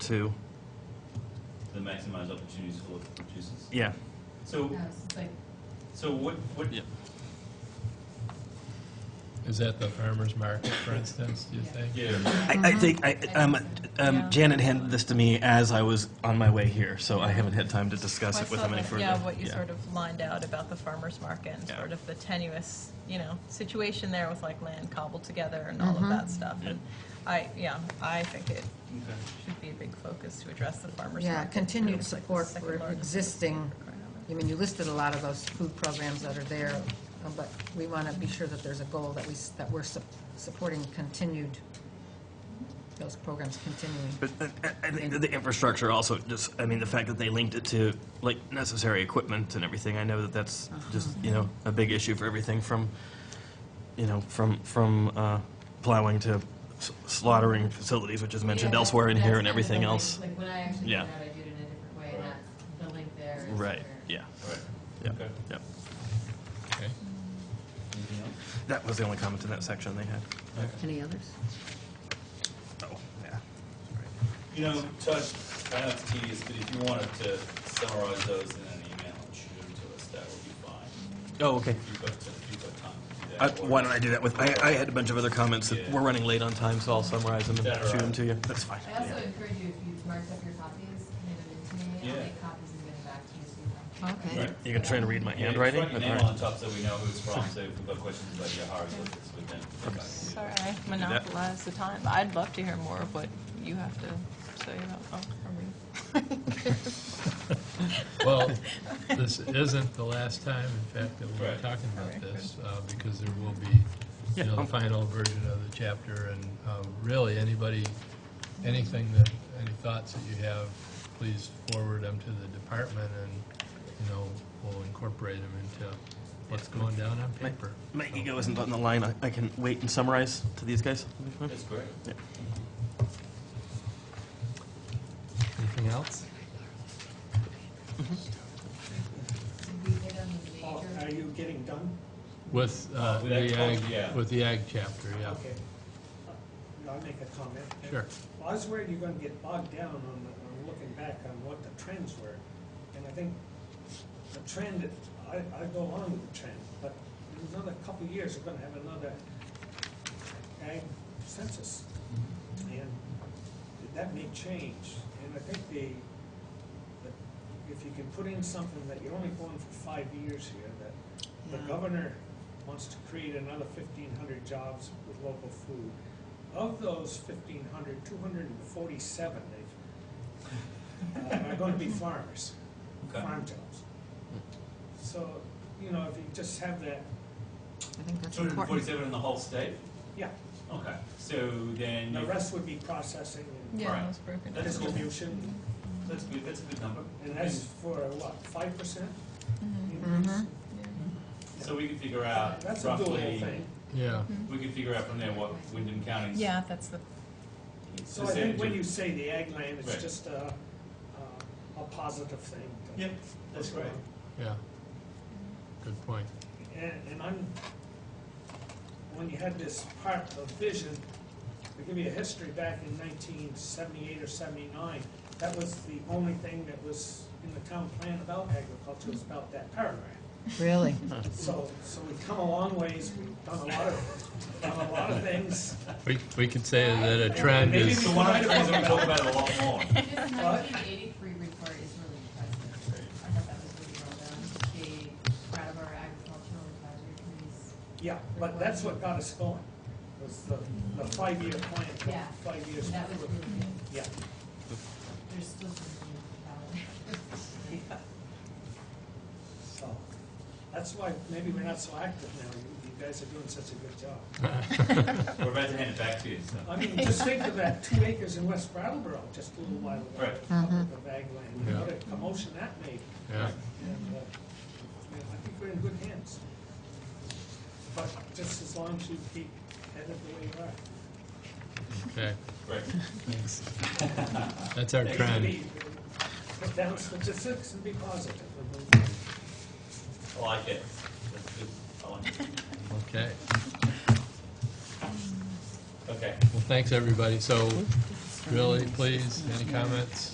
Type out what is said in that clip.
to, to maximize opportunities for local producers. yeah. So, Yes, like, so what, what, Yeah. Is that the farmer's market, for instance, do you Yeah. think? I, yeah, Uh-huh. I think, I, um, Yeah. um, Janet handed this to me as I was on my way here, so I haven't had time to discuss Well, I it with saw him any that- further. Yeah, what you sort of lined out about the farmer's market and Yeah. sort of the tenuous, you know, situation there with like land cobbled together and Mm-hmm. all of that stuff. And I, yeah, I think it okay. should be a big focus to address the farmer's market. Yeah, continued It's like the support second for largest existing, market around. I mean, you listed a lot of those food programs that are there, uh, but we want to be sure that there's a goal that we, s- that we're sup- supporting continued, those programs continuing. But uh, I I think that the infrastructure also just, I mean, the fact that they linked it to, like, necessary equipment and everything, I know that that's Uh-huh. just, you know, a big issue for everything from, you know, from, from uh, plowing to s- slaughtering facilities, which is mentioned yeah, elsewhere in that's here kind and of everything the link. else. Like, when I actually Yeah. came out, I did it in a different way, and that's the link there. is Right, where- yeah, All right. yeah, Okay. yeah. Okay. Anything else? That was the only comment in that section they had. Any others? Oh, yeah. You know, Todd, I know it's tedious, but if you wanted to summarize those in an email and shoot them to us, that would be fine. Oh, okay. If you've got, if you've got time to do Uh, that. or- Why don't I do that with, I, I had a bunch of other comments that Yeah. we're running late on time, so I'll summarize them That and are shoot them right. to you. That's fine. I also Yeah. encourage you, if you've marked up your copies, hand them in to me, I'll Yeah. make copies and get them back to you so you have. Okay. You- You can try and read my Yeah, just handwriting? Write your All name right. on the top so we know who it's from, so if we've got questions about your hieroglyphics, we can come back and do Sorry, that. I monopolized the time. I'd love to hear more of what you have to say about, oh, are we? Well, this isn't the last time, in fact, that we'll Right. be talking about Alright, this, uh, because there will be, Yeah, you know, um, the final version of the chapter, and um, really, anybody, anything that, any thoughts that you have, please forward them to the department, and, you know, we'll incorporate them into what's going down on My- paper. My ego isn't on the line. I- I can wait and summarize to these guys. That'll be fine. That's great. Anything else? Did we hit on the Paul, major? Are Oh, you getting done? With, uh, With that the code, yeah. ag, with the ag chapter, yeah, Okay. Uh, I'll make a comment. sure. I was worried you're gonna get bogged down on, the- on looking back on what the trends were. And I think the trend, I, I go on with the trend, but in another couple of years, we're gonna have another ag census. And that may change. And I think the, the- if you can put in something that you're only going for five years here, that The Yeah. governor wants to create another fifteen hundred jobs with local food. Of those 1,500, 247 they've, uh, are gonna be farmers, Okay. farm jobs. So, you know, if you just have that, I think that's Two hundred and important. forty-seven in the whole state? yeah, Okay, so then. the you- rest would be processing and Yeah, Right. it was broken down. That is cool. Mm-hmm. distribution, That's good, that's a good number. and that's for what, five percent Mhm, increase? yeah. So we can figure out That's a doable roughly, thing. Yeah. Mm-hmm. we can figure out from there what Wyndham County's. Yeah, that's the, So I think when percentage you is. say the ag land, Right. it's just a, uh, a positive thing. to- Yep, that's great. Yeah. Good point. And, and I'm, when you had this part of vision, to give you a history, back in nineteen seventy-eight or seventy-nine, that was the only thing that was in the town plan about agriculture, was about that paragraph. Really? So, so we've come a long ways, we've done a lot of, done a lot of things. We, we could say that a trend Maybe is, So one of the things we're gonna talk about a lot more. This nineteen eighty-three report is really impressive. I thought that was really well done. The proud of our agricultural advisory committees. Yeah, but that's what got us going, was the, the five-year plan, Yeah. five years. That was really good. Yeah. There's still some new talent. So, that's why maybe we're not so active now. You, you guys are doing such a good job. We're about to hand it back to you, so. I mean, just think of that two acres in West Brattleboro just a little while ago. Right. Up with the ag land, and Yeah. what a commotion that made. yeah, And, uh, you know, I think we're in good hands. But just as long as you keep headed the way you are. okay, Great. thanks. That's our Take it trend. easy. Put down statistics and be positive. I like it. That's good. I like it. Okay, Okay. well, thanks, everybody. So Really, please, any comments?